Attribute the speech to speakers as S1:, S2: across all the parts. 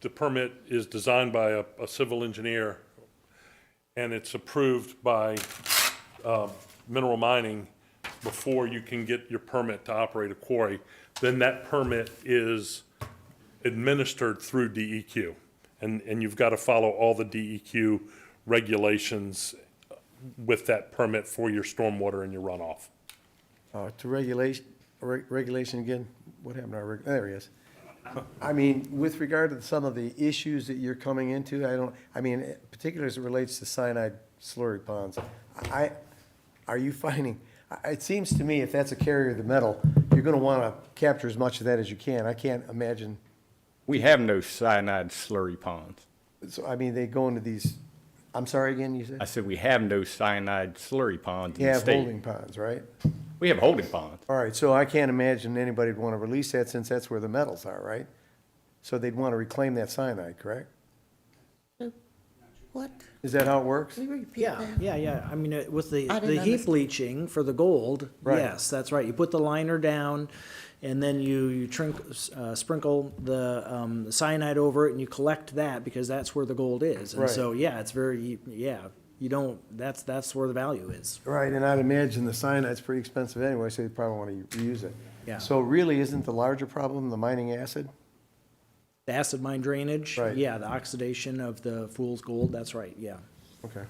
S1: the permit is designed by a, a civil engineer, and it's approved by, um, mineral mining before you can get your permit to operate a quarry, then that permit is administered through DEQ. And, and you've got to follow all the DEQ regulations with that permit for your stormwater and your runoff.
S2: Uh, to regulation, re- regulation again, what happened to our, reg- there he is. I mean, with regard to some of the issues that you're coming into, I don't, I mean, particularly as it relates to cyanide slurry ponds, I, are you finding, I- it seems to me if that's a carrier of the metal, you're gonna wanna capture as much of that as you can. I can't imagine,
S3: We have no cyanide slurry ponds.
S2: so, I mean, they go into these, I'm sorry again, you
S3: I
S2: said?
S3: said we have no cyanide slurry ponds in
S2: You
S3: the
S2: have
S3: state.
S2: holding ponds, right?
S3: We have holding ponds.
S2: All right, so I can't imagine anybody'd want to release that since that's where the metals are, right? So they'd want to reclaim that cyanide, correct?
S4: What?
S2: Is that how it works?
S4: Can you repeat
S5: Yeah,
S4: that?
S5: yeah, yeah. I mean, uh, with the,
S4: I didn't
S5: the heap
S4: understand.
S5: leaching for the gold,
S2: Right.
S5: yes, that's right. You put the liner down and then you, you trink, uh, sprinkle the, um, cyanide over it and you collect that because that's where the gold is. And
S2: Right.
S5: so, yeah, it's very, yeah, you don't, that's, that's where the value is.
S2: Right, and I'd imagine the cyanide's pretty expensive anyway, so they probably want to reuse it.
S5: Yeah.
S2: So really, isn't the larger problem the mining acid?
S5: The acid mine drainage,
S2: Right.
S5: yeah, the oxidation of the fool's gold, that's right, yeah.
S2: Okay.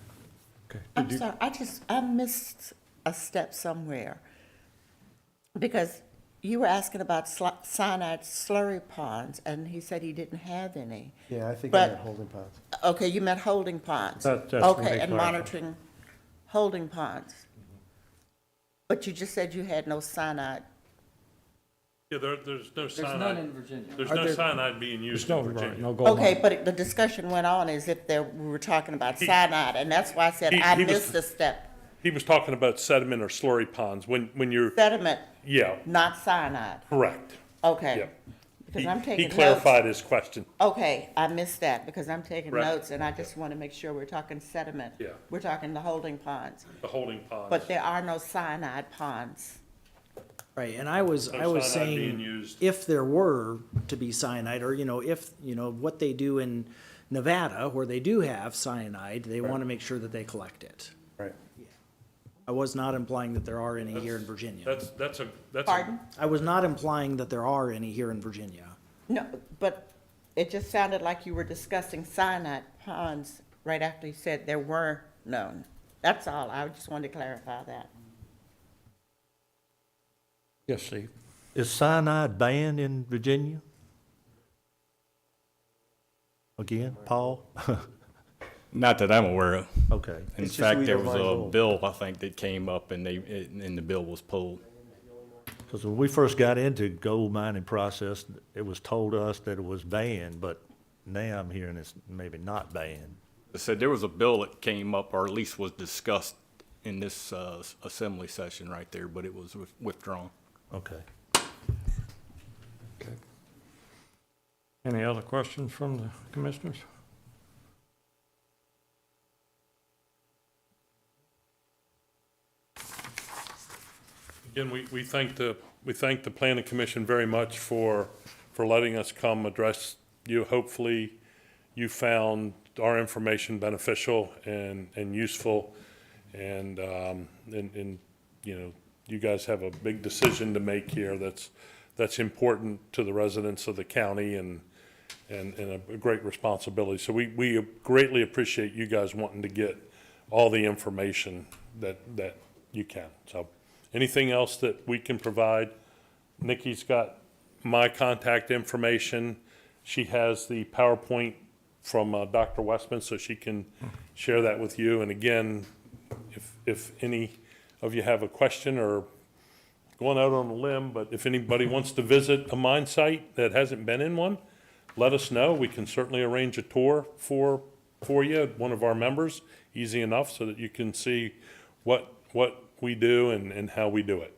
S4: I'm sorry, I just, I missed a step somewhere. Because you were asking about sli- cyanide slurry ponds, and he said he didn't have any.
S2: Yeah, I think I
S4: But-
S2: had holding ponds.
S4: Okay, you meant holding ponds.
S1: That- that's what
S4: Okay,
S1: they
S4: and
S1: clarified.
S4: monitoring holding ponds. But you just said you had no cyanide.
S1: Yeah, there, there's no
S6: There's none in
S1: cyanide,
S6: Virginia.
S1: there's no cyanide being used in Virginia.
S4: Okay, but the discussion went on as if there, we were talking about cyanide, and that's why I said
S1: He-
S4: I
S1: he was-
S4: missed a step.
S1: He was talking about sediment or slurry ponds, when, when you're,
S4: Sediment,
S1: yeah,
S4: not cyanide.
S1: correct.
S4: Okay.
S1: Yep.
S4: Because
S1: He
S4: I'm taking
S1: he
S4: notes.
S1: clarified his question.
S4: Okay, I missed that because I'm taking
S1: Right.
S4: notes and I just want to make sure we're talking sediment.
S1: Yeah.
S4: We're talking the holding ponds,
S1: The holding ponds.
S4: but there are no cyanide ponds.
S5: Right, and I was,
S1: So
S5: I was
S1: cyanide being
S5: saying,
S1: used.
S5: if there were to be cyanide, or, you know, if, you know, what they do in Nevada, where they do have cyanide, they want to make sure that they collect it.
S2: Right.
S5: I was not implying that there are any here in Virginia.
S1: That's, that's a, that's. a-
S4: Pardon?
S5: I was not implying that there are any here in Virginia.
S4: No, but it just sounded like you were discussing cyanide ponds right after you said there were none. That's all. I just wanted to clarify that.
S7: Yes, Steve. Is cyanide banned in Virginia? Again, Paul?
S3: Not that I'm aware of.
S7: Okay.
S3: In
S2: It's just
S3: fact,
S2: we
S3: there
S2: don't
S3: was
S2: mind
S3: a
S2: gold.
S3: bill, I think, that came up and they, and the bill was pulled.
S7: Because when we first got into gold mining process, it was told us that it was banned, but now I'm hearing it's maybe not banned.
S3: I said there was a bill that came up, or at least was discussed in this, uh, assembly session right there, but it was with- withdrawn.
S7: Okay.
S8: Any other questions from the commissioners?
S1: Again, we, we thank the, we thank the planning commission very much for, for letting us come address you. Hopefully, you found our information beneficial and, and useful. And, um, and, and, you know, you guys have a big decision to make here that's, that's important to the residents of the county and, and, and a great responsibility. So we, we greatly appreciate you guys wanting to get all the information that, that you can. So anything else that we can provide? Nikki's got my contact information. She has the PowerPoint from uh, Dr. Westman, so she can share that with you. And again, if, if any of you have a question or going out on a limb, but if anybody wants to visit a mine site that hasn't been in one, let us know. We can certainly arrange a tour for, for you, one of our members, easy enough, so that you can see what, what we do and, and how we do it.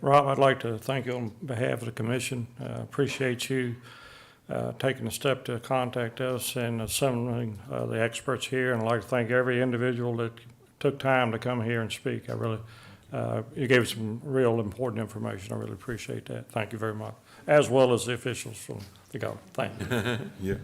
S8: Rob, I'd like to thank you on behalf of the commission. Uh, Appreciate you uh, taking the step to contact us and assembling uh, the experts here. And I'd like to thank every individual that took time to come here and speak. I really, uh, you gave some real important information. I really appreciate that. Thank you very much, as well as the officials from the government. Thank you.
S9: Yeah,